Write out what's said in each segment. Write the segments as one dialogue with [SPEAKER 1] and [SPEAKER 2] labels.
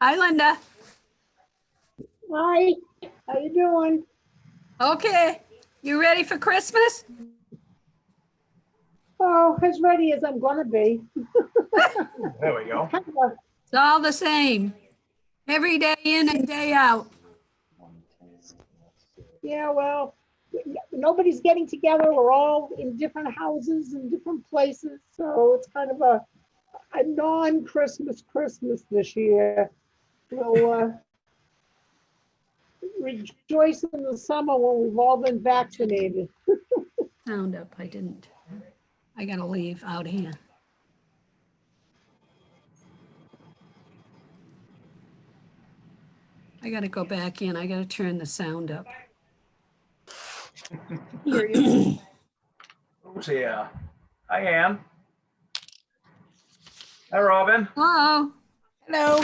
[SPEAKER 1] Hi, Linda.
[SPEAKER 2] Hi, how you doing?
[SPEAKER 1] Okay, you ready for Christmas?
[SPEAKER 2] Oh, as ready as I'm gonna be.
[SPEAKER 3] There we go.
[SPEAKER 1] It's all the same. Every day in and day out.
[SPEAKER 2] Yeah, well, n- nobody's getting together. We're all in different houses and different places, so it's kind of a, a non-Christmas Christmas this year. We'll, uh, rejoice in the summer when we've all been vaccinated.
[SPEAKER 1] Sound up, I didn't. I gotta leave out here. I gotta go back in. I gotta turn the sound up.
[SPEAKER 3] Who's here? Hi, Ann. Hi, Robin.
[SPEAKER 1] Hello,
[SPEAKER 4] Hello.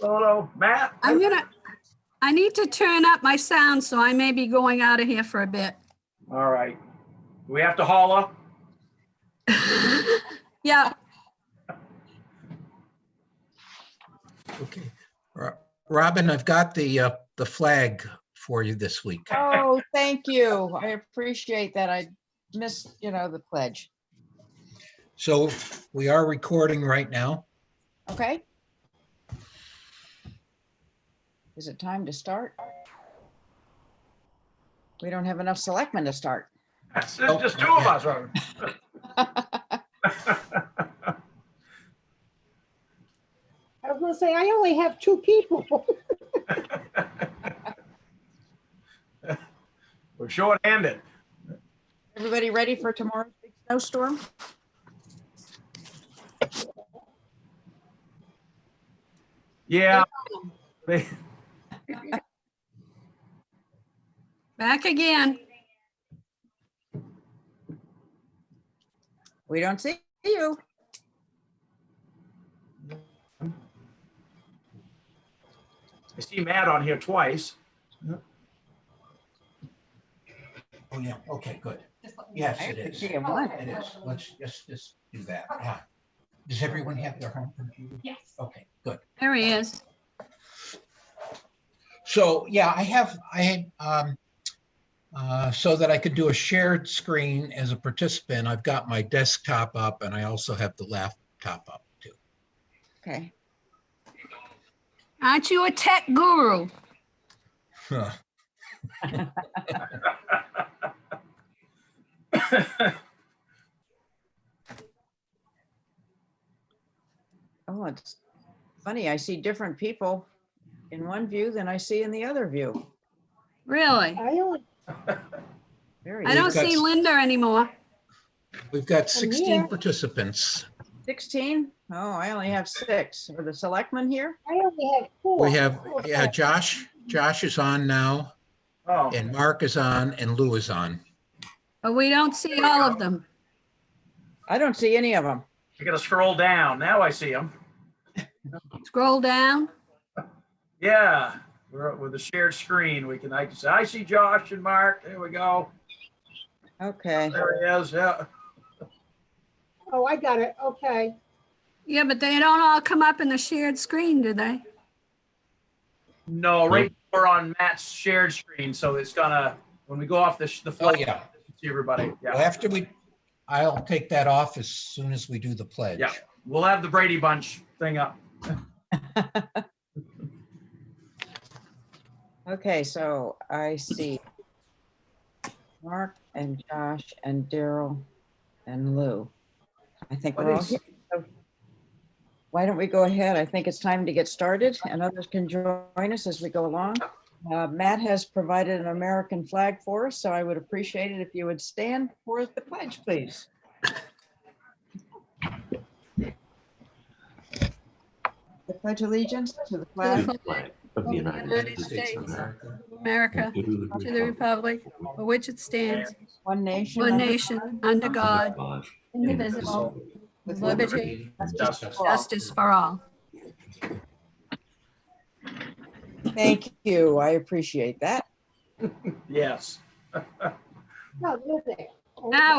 [SPEAKER 3] Hello, Matt.
[SPEAKER 1] I'm gonna, I need to turn up my sound, so I may be going out of here for a bit.
[SPEAKER 3] All right. Do We have to holler.
[SPEAKER 1] Yeah,
[SPEAKER 5] Okay. Ro- Robin, I've got the, uh, the flag for you this week.
[SPEAKER 4] Oh, thank you. I appreciate that. I missed, you know, the pledge.
[SPEAKER 5] So we are recording right now.
[SPEAKER 4] Okay? Is it time to start? We don't have enough selectmen to start.
[SPEAKER 3] That's there's just two of us, Robin.
[SPEAKER 2] I was gonna say, I only have two people.
[SPEAKER 3] We're short-handed.
[SPEAKER 4] Everybody ready for tomorrow's big snowstorm?
[SPEAKER 3] Yeah. They-
[SPEAKER 1] back again.
[SPEAKER 4] We don't see you.
[SPEAKER 3] I see Matt on here twice.
[SPEAKER 5] Oh, yeah. Okay, good. Yes,
[SPEAKER 4] I
[SPEAKER 5] it
[SPEAKER 4] didn't
[SPEAKER 5] is.
[SPEAKER 4] see you once.
[SPEAKER 5] It is. Let's just, just do that. Ah. Does everyone have their home computer? Yes. Okay, good.
[SPEAKER 1] There he is.
[SPEAKER 5] So, yeah, I have, I had, um, uh, so that I could do a shared screen as a participant, I've got my desktop up and I also have the laptop up too.
[SPEAKER 4] Okay.
[SPEAKER 1] Aren't you a tech guru?
[SPEAKER 5] Huh.
[SPEAKER 4] Oh, it's funny. I see different people in one view than I see in the other view.
[SPEAKER 1] Really?
[SPEAKER 2] I only,
[SPEAKER 4] Very
[SPEAKER 1] I don't
[SPEAKER 5] We've got
[SPEAKER 1] see
[SPEAKER 5] s-
[SPEAKER 1] Linda anymore.
[SPEAKER 5] We've got
[SPEAKER 2] And
[SPEAKER 5] 16
[SPEAKER 2] here-
[SPEAKER 5] participants.
[SPEAKER 4] 16? Oh, I only have six. Are the selectmen here?
[SPEAKER 2] I only have four.
[SPEAKER 5] We have,
[SPEAKER 2] Okay.
[SPEAKER 5] yeah, Josh, Josh is on now,
[SPEAKER 3] Oh,
[SPEAKER 5] and Mark is on, and Lou is on.
[SPEAKER 1] But we don't see all of them.
[SPEAKER 4] I don't see any of them.
[SPEAKER 3] I gotta scroll down. Now I see him.
[SPEAKER 1] Scroll down.
[SPEAKER 3] Yeah, we're with the shared screen. We can, I can say, I see Josh and Mark. There we go.
[SPEAKER 4] Okay.
[SPEAKER 3] There he is. Yeah.
[SPEAKER 2] Oh, I got it, okay.
[SPEAKER 1] Yeah, but they don't all come up in the shared screen, do they?
[SPEAKER 3] No, right, now we're on Matt's shared screen, so it's gonna, when we go off the, sh- the
[SPEAKER 5] Oh,
[SPEAKER 3] flag,
[SPEAKER 5] yeah.
[SPEAKER 3] see everybody.
[SPEAKER 5] Well,
[SPEAKER 3] Yeah,
[SPEAKER 5] after we, I'll take that off as soon as we do the pledge.
[SPEAKER 3] Yeah. we'll have the Brady Bunch thing up.
[SPEAKER 4] Okay, so I see Mark and Josh and Daryl and Lou. I think we're all here. So Why don't we go ahead? I think it's time to get started and others can join us as we go along. Uh, Matt has provided an American flag for us, so I would appreciate it if you would stand for the pledge, please. The pledge allegiance to the
[SPEAKER 1] To
[SPEAKER 4] flag
[SPEAKER 1] the flag
[SPEAKER 6] Of
[SPEAKER 1] of
[SPEAKER 6] the United States of America.
[SPEAKER 5] America,
[SPEAKER 1] of America,
[SPEAKER 6] and
[SPEAKER 1] to the republic Oh, for which it stands,
[SPEAKER 4] one nation.
[SPEAKER 1] one
[SPEAKER 4] under
[SPEAKER 1] nation, under God, indivisible,
[SPEAKER 6] indivisible,
[SPEAKER 1] with
[SPEAKER 6] with
[SPEAKER 1] liberty,
[SPEAKER 3] Justice.
[SPEAKER 4] for all.
[SPEAKER 1] justice for all.
[SPEAKER 4] Thank you. I appreciate that.
[SPEAKER 3] Yes.
[SPEAKER 2] No, look there.
[SPEAKER 1] Now